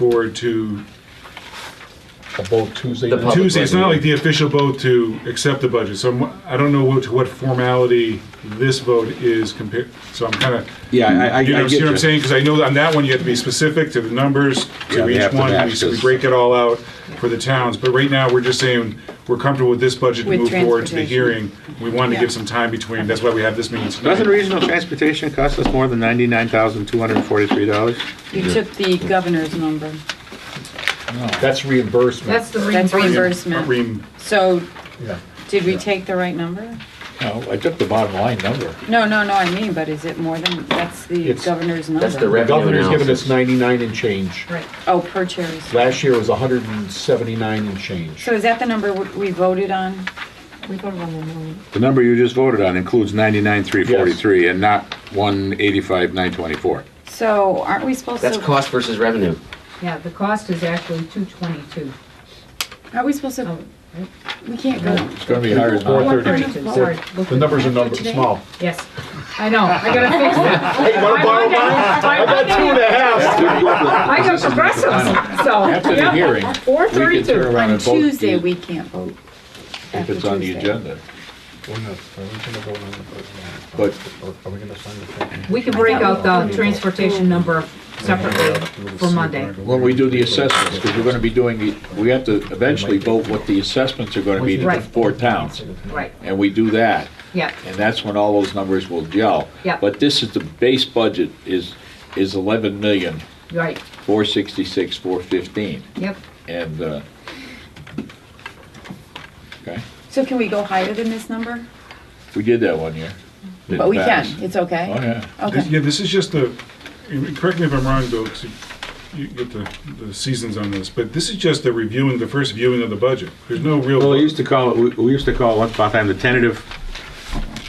forward to A vote Tuesday. The night? public- Tuesday. It's not like the official vote to accept the budget, so I'm- I don't know what, what formality this vote is compared, so I'm kind of, Yeah, I, I, you I know, get see what you. I'm saying? Because I know on that one, you have to be specific to the numbers, Yeah, to they each have to one, match we- so we this. break it all out for the towns. But right now, we're just saying, we're comfortable with this budget to With move forward to the hearing. transportation. We wanted to Yeah. give some time between, that's why we have this meeting Doesn't tonight. regional transportation cost us more than ninety-nine thousand, two hundred and forty-three dollars? You took the governor's number. That's reimbursement. That's the That's reimbursement. reimbursement. Reem- So Yeah. did we take the right number? No, I took the bottom line number. No, no, no, I mean, but is it more than, that's the It's- governor's number? That's the The revenue governor's given us analysis. 99 and change. Right. Oh, per cherries. Last year was 179 and change. So is that the number w- we voted on? We voted on the million. The number you just voted on includes ninety-nine, three forty-three, and not one eighty-five, nine twenty-four. So aren't we supposed That's to, cost versus revenue. Yeah, the cost is actually two twenty-two. aren't we supposed to, we can't go. It's gonna be higher than that. 432. Sorry, look The at numbers are that. number, small. Yes, I know, I gotta fix that. Hey, you want a bottom line? I got two and a half. I got progressives, so. After the hearing, Four we can turn thirty-two. around On and vote. Tuesday, we can't vote. If After it's on the Tuesday. agenda. But We can break out the transportation number separately for Monday. when we do the assessments, because we're gonna be doing, the, we have to eventually vote what the assessments are gonna be to the Right. four towns. Right, And we do that. yeah, And that's when all those numbers will gel. Yeah. But this is, the base budget is, is 11 million, right, 466, 415. yep. And, uh, okay, So can we go higher than this number? we did that one year. Didn't But we pass. can, it's okay? Oh, yeah. Okay. Yeah, this is just the, correct me if I'm wrong, Bill, 'cause you- you get the, the seasons on this, but this is just the reviewing, the first viewing of the budget. There's no real. Well, we used to call it, we- we used to call it once upon a time the tentative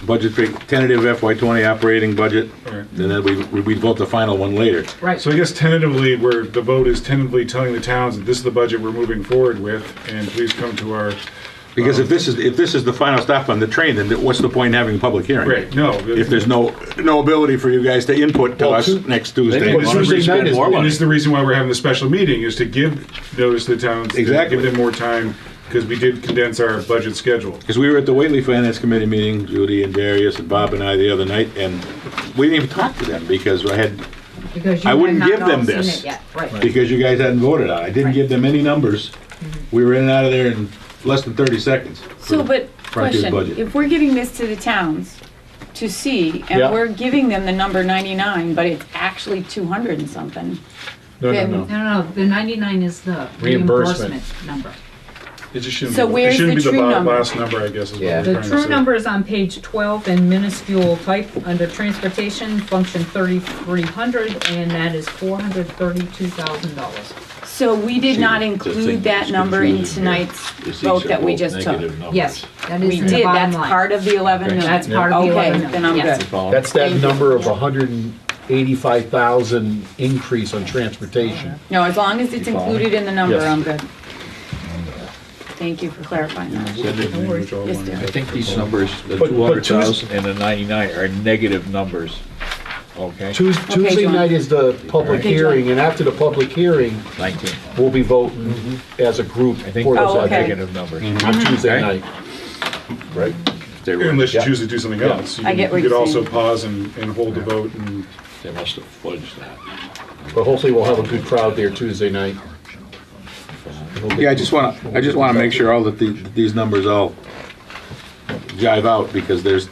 budget, fig- tentative FY twenty operating budget, All right. and then we, we'd vote the final one later. Right. So I guess tentatively, where the vote is tentatively telling the towns that this is the budget we're moving forward with, and please come to our, Because if this is, if this is the final stop on the train, then what's the point in having a public hearing? right, no. If there's no, no ability for you guys to input to Well, us two- next They Tuesday. didn't want Tuesday to night spend is- more And money. this is the reason why we're having the special meeting, is to give notice to the towns. to Exactly. Give them more time, because we did condense our budget schedule. Because we were at the Whately Finance Committee meeting, Judy and Darius and Bob and I the other night, and we didn't even talk to them because I had, Because I you have wouldn't not give them all seen this. it yet, right. because you guys hadn't voted on it. I didn't Right. give them any numbers. We were in and out of there in less than thirty seconds. So, but Frontier question, budget. if we're giving this to the towns to see, Yeah. and we're giving them the number 99, but it's actually 200 and something, No, no, Then- no. No, no, no, the ninety-nine is the Reimbursement. reimbursement number. It just shouldn't. So be- where's It shouldn't the be the true bo- number? last number, I guess, is what Yeah. we're The trying The to say. true number is on page 12 in minuscule type under transportation, function 3300, and that is $432,000. so we did not See, the thing include that that's number in confusing here tonight's is these vote are that we both just took. negative numbers. Yes, that is We in the did, bottom that's line. part of the 11 million. That's part of the Okay, 11 then I'm million, yes. good. That's that Thank you. number of 185,000 increase on transportation. No, as long as it's You follow me? included in the number, Yes. I'm good. Thank you for clarifying that. Send it to me, Yes, which dear. I'll- I think these numbers, the But- but Tues- 200,000 and the 99 are negative numbers, okay? Tues- Tuesday John. night is the public Okay, John. hearing, and after the public hearing, 19, we'll be voting as a group I for think Mm-hmm. Oh, those are okay. negative numbers. on Tuesday Okay. night. Right? They were- Unless you yeah, choose to do something else. You I can- get what You could you're also saying. pause and, and hold the vote and. They must have fudged that. But hopefully we'll have a good crowd there Tuesday night. Yeah, I just want to, I just want to make sure all that the- that these numbers all jive out, because there's,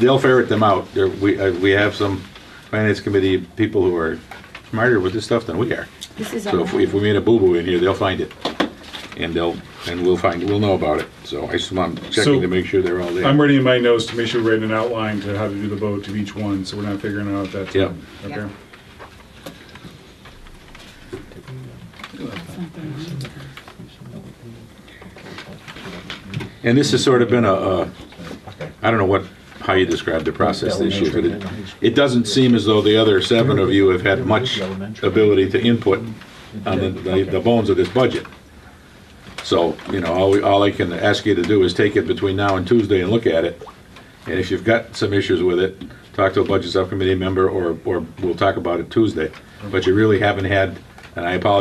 they'll ferret them out. There, we, uh, we have some finance committee people who are smarter with this stuff than we are. This is So if we, if we made a boo-boo in here, they'll find it. And they'll, and we'll find, we'll know about it. So I just want, checking to make sure they're all I'm there. ready in my notes to make sure we're writing an outline to how to do the vote to each one, so we're not figuring out that. Yeah. time. Yeah. Okay. And this has sort of been a, a, I don't know what, how you describe the process this year, but it, it doesn't seem as though the other seven of you have had much ability to input on the, the- the bones of this budget. So, you know, all, we- all I can ask you to do is take it between now and Tuesday and look at it. And if you've got some issues with it, talk to a budget subcommittee member or, or we'll talk about it Tuesday. But you really haven't had, and I apologize